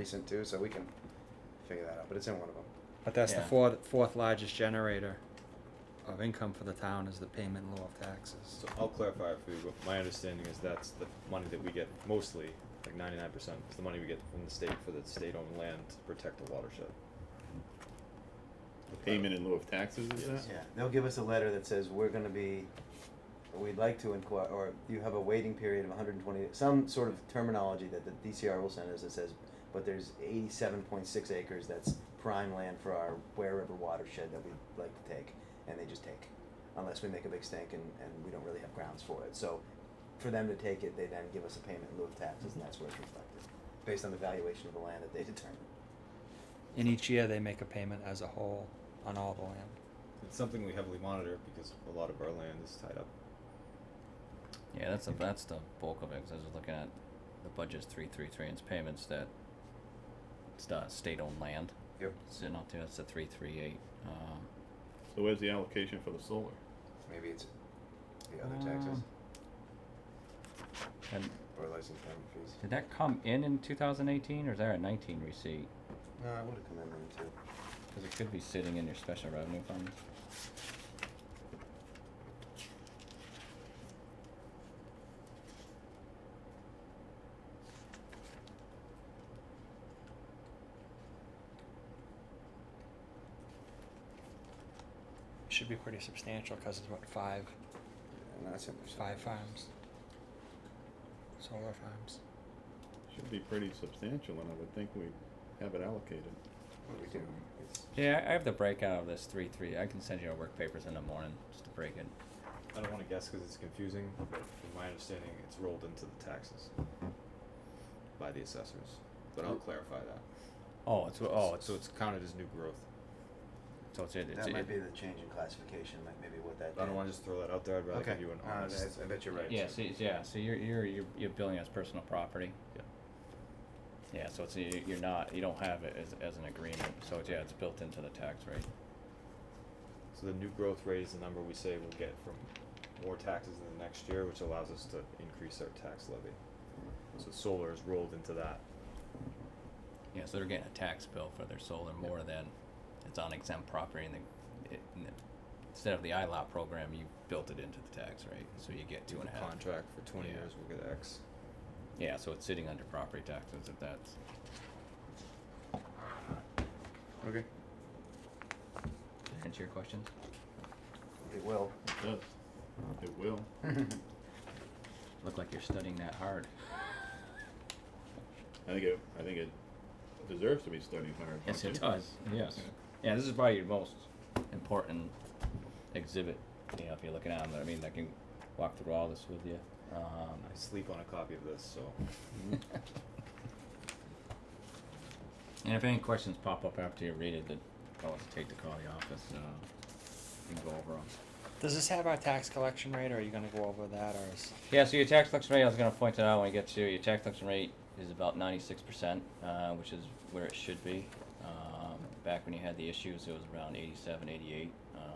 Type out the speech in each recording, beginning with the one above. recent too, so we can figure that out. But it's in one of them. But that's the Yeah. fourth, fourth largest generator of income for the town is the payment in lieu of taxes. So I'll clarify for you, but my understanding is that's the money that we get mostly, like ninety-nine percent, is the money we get from the state for the state-owned land to protect the watershed. The payment in lieu of taxes, is that? Yes. Yeah, they'll give us a letter that says we're gonna be, we'd like to inquire, or you have a waiting period of hundred and twenty, some sort of terminology that the DCR will send us that says, but there's eighty-seven point six acres that's prime land for our Ware River watershed that we'd like to take, and they just take, unless we make a big stink and, and we don't really have grounds for it, so for them to take it, they then give us a payment in lieu of taxes, and that's where it's reflected, based on the valuation of the land that they determine. And each year they make a payment as a whole on all the land. It's something we heavily monitor because a lot of our land is tied up. Yeah, that's the that's the bulk of it. 'cause I was just looking at the budget's three three three and its payments that it's the state owned land Yep. sitting up there. That's the three three eight. Um, So where's the allocation for the solar? Maybe it's the other taxes, Um, and or license permit fees. did that come in in 2018 or is that a 19 receipt? No, I would have come in then too. Because it could be sitting in your special revenue fund. Should be pretty substantial because it's what, five, Yeah, Not so much. five farms? Solar farms. Should be pretty substantial, and I would think we'd have it allocated. What we do, it's, Yeah, I have the breakout of this three three. I can send you our work papers in the morning just to break it. I don't wanna guess because it's confusing, but from my understanding, it's rolled into the taxes by the assessors, but I'll clarify that. Oh, it's oh, it's So it's counted as new growth. so it's, it's, that might it, be the change in classification, like maybe what that. I don't did. wanna just throw that out there, I'd rather Okay. give you an Uh, honest. that's- I bet you're right. Yeah, so yeah, so you're you're you're, you're billing as personal property. Yeah. Yeah, so it's you- you're not you don't have it as as an agreement. So it's, yeah, it's built into the tax rate. So the new growth rate is the number we say we'll get from more taxes in the next year, which allows us to increase our tax levy. So solar is rolled into that. Yeah, so they're getting a tax bill for their solar more than it's on exempt property, and the, it, and the- instead of the ILOT program, you built it into the tax rate, so you get two With and the a half. Contract for twenty Yeah. years, we'll get X. Yeah, so it's sitting under property taxes if that's. Okay. Answer your questions. It will. It does. It will. Look like you're studying that hard. I think it, I think it deserves to be studied hard. Yes, don't it you? does. Yes. Yeah, this is probably your most important exhibit. You know, if you're looking at them, I mean, I can walk through all this with you. Um, I sleep on a copy of this, so and if any questions pop up after you read it, then call us. Take the call the office. Uh, we can go over them. Does this have our tax collection rate or are you gonna go over that or is? Yeah, so your tax collection rate, I was gonna point it out when we get to, it, your tax collection rate is about ninety-six percent, uh, which is where it should be. Um, back when you had the issues, it was around eighty-seven, eighty-eight, um,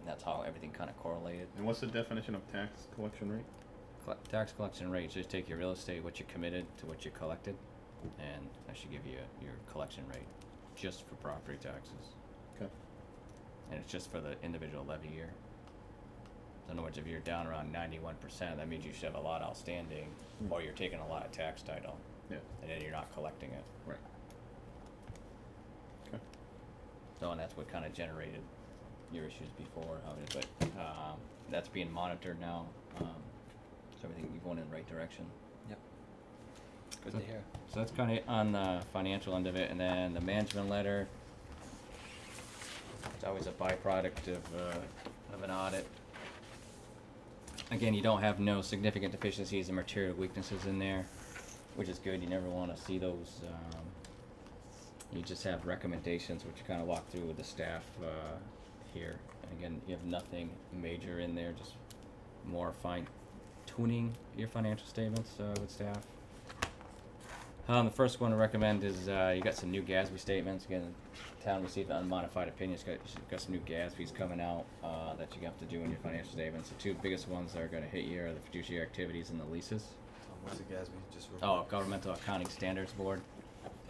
and that's how everything kinda correlated. And what's the definition of tax collection rate? Cl- tax collection rate, just take your real estate, what you committed to what you collected, and that should give you your collection rate, just for property taxes. Okay. And it's just for the individual levy year. So in other words, if you're down around ninety-one percent, that means you should have a lot outstanding, Hmm. or you're taking a lot of tax title, Yeah. and then you're not collecting it. Right. Okay. So, and that's what kinda generated your issues before, how it is, but, um, that's being monitored now, um, so everything, you're going in the right direction. Yep. Good So- to hear. So that's kind of on the financial end of it, and then the management letter. It's always a byproduct of, uh, of an audit. Again, you don't have no significant deficiencies and material weaknesses in there, which is good, you never wanna see those, um, you just have recommendations, which you kinda walk through with the staff, uh, here. And again, you have nothing major in there, just more fine tuning your financial statements, uh, with staff. Um, the first one to recommend is uh, you got some new GASB statements. Again, the town received unmodified opinions. Got, got some new GASBs coming out uh, that you have to do in your financial statements. The two biggest ones that are going to hit you are the fiduciary activities and the leases. um, what's the GASB just real Oh, quick? Governmental Accounting Standards Board.